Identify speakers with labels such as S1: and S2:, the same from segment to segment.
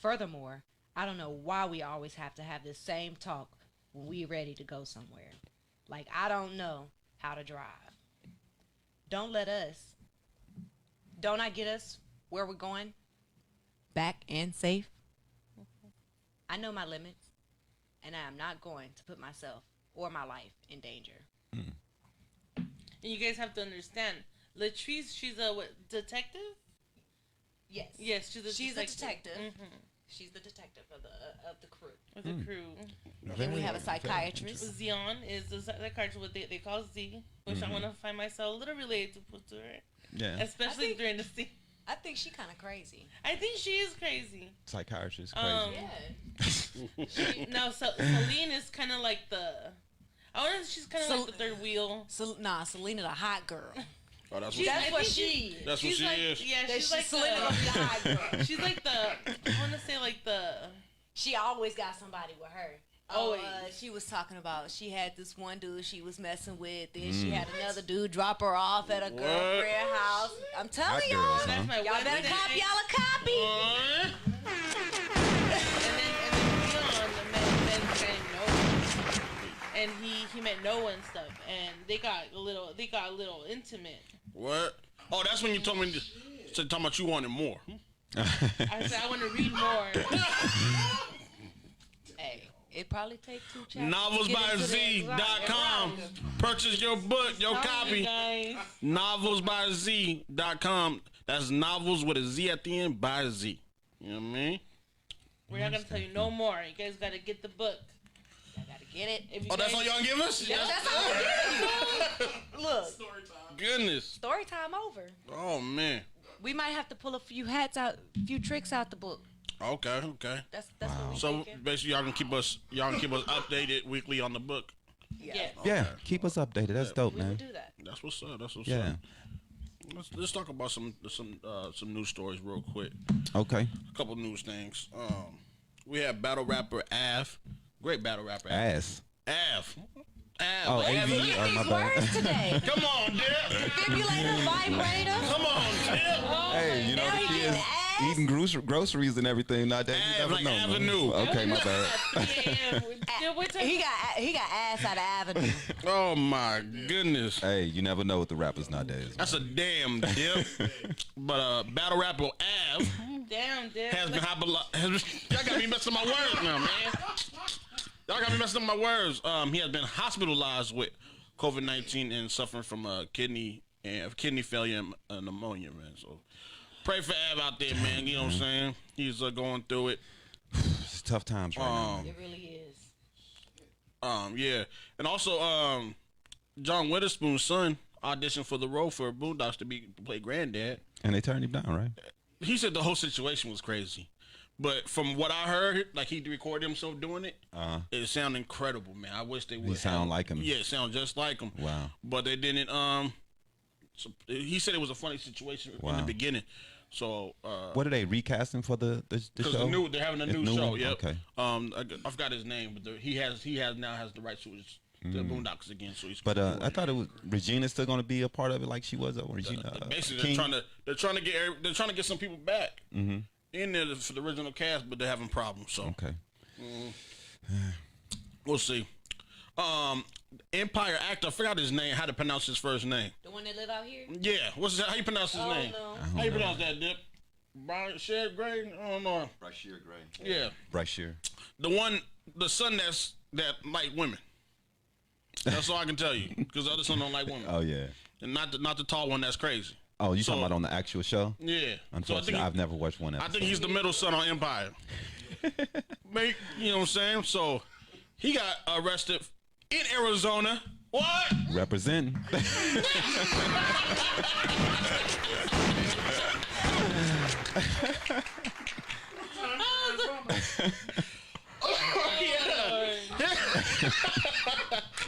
S1: Furthermore, I don't know why we always have to have this same talk when we're ready to go somewhere. Like, I don't know how to drive. Don't let us, don't I get us where we're going?
S2: Back and safe.
S1: I know my limits, and I am not going to put myself or my life in danger.
S3: And you guys have to understand, Latrice, she's a what, detective.
S1: Yes.
S3: Yes, she's a
S1: She's a
S3: detective.
S1: detective.
S3: Mhm.
S1: She's the detective of the of the crew.
S3: With
S4: Hmm.
S3: the crew.
S2: Then we
S5: Very
S2: have a
S5: good.
S2: psychiatrist.
S3: Zion is the psychiatrist, what they, they call Z, which
S4: Mm-hmm.
S3: I want to find myself a little relatable to her,
S5: Yeah,
S3: especially
S2: think-
S3: during the scene.
S2: I think she kind of crazy.
S3: I think she is crazy.
S5: psychiatrist. Crazy.
S3: Um, no, so Celine is kind of like the. I want to. She's kind of
S2: Cel-
S3: like the third wheel.
S2: Sel- nah, Selena the hot girl.
S4: Oh, that's
S3: She's-
S4: what,
S3: I
S2: That's what
S3: think
S2: she. is.
S4: that's what
S3: she's
S4: she
S3: like,
S4: is.
S3: Yeah,
S2: That
S3: she's
S2: she-
S3: like
S2: Selena gonna be
S4: oh,
S3: the.
S2: the hot girl.
S3: She's like the. I want to say like the.
S2: She always got somebody with her. Oh,
S3: Always.
S2: uh, she was talking about she had this one dude she was messing with, then
S5: Mm.
S2: she had another dude drop her off at a
S4: What?
S2: girlfriend house. I'm telling
S5: Hot
S2: y'all,
S5: girls, huh?
S3: That's my
S2: y'all better
S3: Wednesday.
S2: copy y'all a copy.
S3: Uh, and then and then Leon met met this guy named Noah, and he he met Noah and stuff, and they got a little they got a little intimate.
S4: What? Oh, that's when you told me. So talking about you wanted more.
S3: I said I want to read more.
S2: Hey, it probably take two chapters. to get into that.
S4: Novelsbyz.com. Purchase your book, your
S3: You
S4: copy.
S3: guys.
S4: Novelsbyz.com. That's novels with a Z at the end by Z. You know what I mean?
S3: We're not gonna tell you no more. You guys gotta get the book.
S2: I gotta get it.
S3: If you
S4: Oh, that's
S3: guys-
S4: all y'all give us?
S2: That's all I'm giving you. Look,
S4: Goodness.
S2: story time over.
S4: Oh man.
S2: We might have to pull a few hats out, few tricks out the book.
S4: Okay, okay.
S2: That's that's what we
S4: So
S2: thinking.
S4: basically y'all can keep us y'all can keep us updated weekly on the book.
S3: Yeah.
S4: Oh,
S5: Yeah, keep us updated. That's dope,
S2: We will
S5: man.
S2: do that.
S4: That's what's up. That's what's
S5: Yeah.
S4: up. Let's, let's talk about some some uh, some news stories real quick.
S5: Okay.
S4: A couple news things. Um, we have battle rapper Av, great battle rapper Av.
S5: Ass.
S4: Av. Av.
S5: Oh,
S4: Av.
S5: AV.
S2: Look
S5: Oh,
S2: at
S5: my
S2: these
S5: bad.
S2: words today.
S4: Come on, Dip.
S2: Defibrillator, vibrator.
S4: Come on, Dip.
S5: Hey, you know
S2: Now
S5: the
S2: he
S5: kids
S2: getting ass.
S5: eating grocer- groceries and everything nowadays.
S4: Hey,
S5: You never
S4: like
S5: know. man.
S4: Avenue.
S5: Okay, my bad.
S3: Yeah, we- yeah, we're
S2: He
S3: talking-
S2: got he got ass out of avenue.
S4: Oh my goodness.
S5: Hey, you never know with the rappers nowadays. man.
S4: That's a damn dip. but uh, battle rapper Av
S3: Damn, dude.
S4: has been hyper- has been- Y'all got me messing up my words now, man. Y'all got me messing up my words. Um, he has been hospitalized with COVID nineteen and suffering from uh, kidney and kidney failure and uh, pneumonia, man. So pray for Av out there, man. You know what I'm saying? He's uh, going through it.
S5: It's tough times right now.
S4: Um,
S1: It really is.
S4: um, yeah, and also um, John Witherspoon's son auditioned for the role for Boondocks to be to play granddad.
S5: And they turned him down, right?
S4: he said the whole situation was crazy. But from what I heard, like he recorded himself doing it, uh it sounded incredible, man. I wish they would
S5: Uh-huh. sound
S4: have-
S5: like him.
S4: Yeah, it sound just like him.
S5: Wow.
S4: But they didn't. Um, so- he said it was a funny situation in
S5: Wow.
S4: the beginning. So uh,
S5: What are they recasting for the the, the
S4: because the
S5: show?
S4: new they're having a
S5: It's
S4: new,
S5: new
S4: show.
S5: one?
S4: Yep.
S5: Okay.
S4: Um, I, I forgot his name, but the, he has he has now has the rights to his the Boondocks again. So he's
S5: Mm. But uh,
S4: doing
S5: I thought it was Regina's still gonna be a part of it, like she was. Or Regina, uh,
S4: Basically,
S5: King. Mm-hmm.
S4: they're trying to they're trying to get every- they're trying to get some people back in there for the original cast, but they're having problems. So
S5: Okay.
S4: we'll see. Um, Empire actor, I forgot his name. How to pronounce his first name?
S1: The one that live out here?
S4: Yeah, what's that? How you pronounce his
S1: Oh,
S4: name?
S1: no. I
S4: How you pronounce that, Dip? Brian Shed Gray? I don't know.
S6: Rashir Gray.
S4: Yeah,
S5: Brashear.
S4: the one, the son that's that like women. That's all I can tell you, because the other son don't like women,
S5: Oh yeah.
S4: and not the, not the tall one. That's crazy.
S5: Oh, you
S4: So-
S5: talking about on the actual show?
S4: Yeah. So I
S5: Unfortunately,
S4: think he-
S5: I've never watched one
S4: I
S5: episode.
S4: think he's the middle son on Empire. Make you know what I'm saying? So he got arrested in Arizona. What?
S5: representing.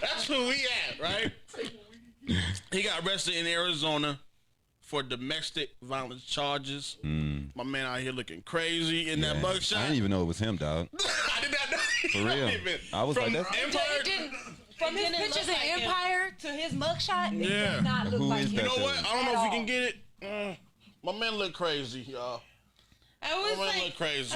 S4: That's who we at, right? he got arrested in Arizona for domestic violence charges. My man out here looking crazy in that
S5: Hmm. Yeah.
S4: mugshot.
S5: I didn't even know it was him, dog.
S4: I did not know.
S5: For real. I was
S4: From
S5: like, that's-
S4: Empire.
S2: From his
S3: didn't look
S2: pictures
S3: like
S2: in
S3: him.
S2: Empire to his mugshot, it
S4: Yeah.
S2: does not look
S5: Who
S2: like
S5: is
S2: him.
S5: that
S4: You know what? I don't
S2: At
S4: know if you
S2: all.
S4: can get it. Uh, my man look crazy, y'all.
S3: I
S4: My
S3: was
S4: man
S3: like,
S4: look crazy.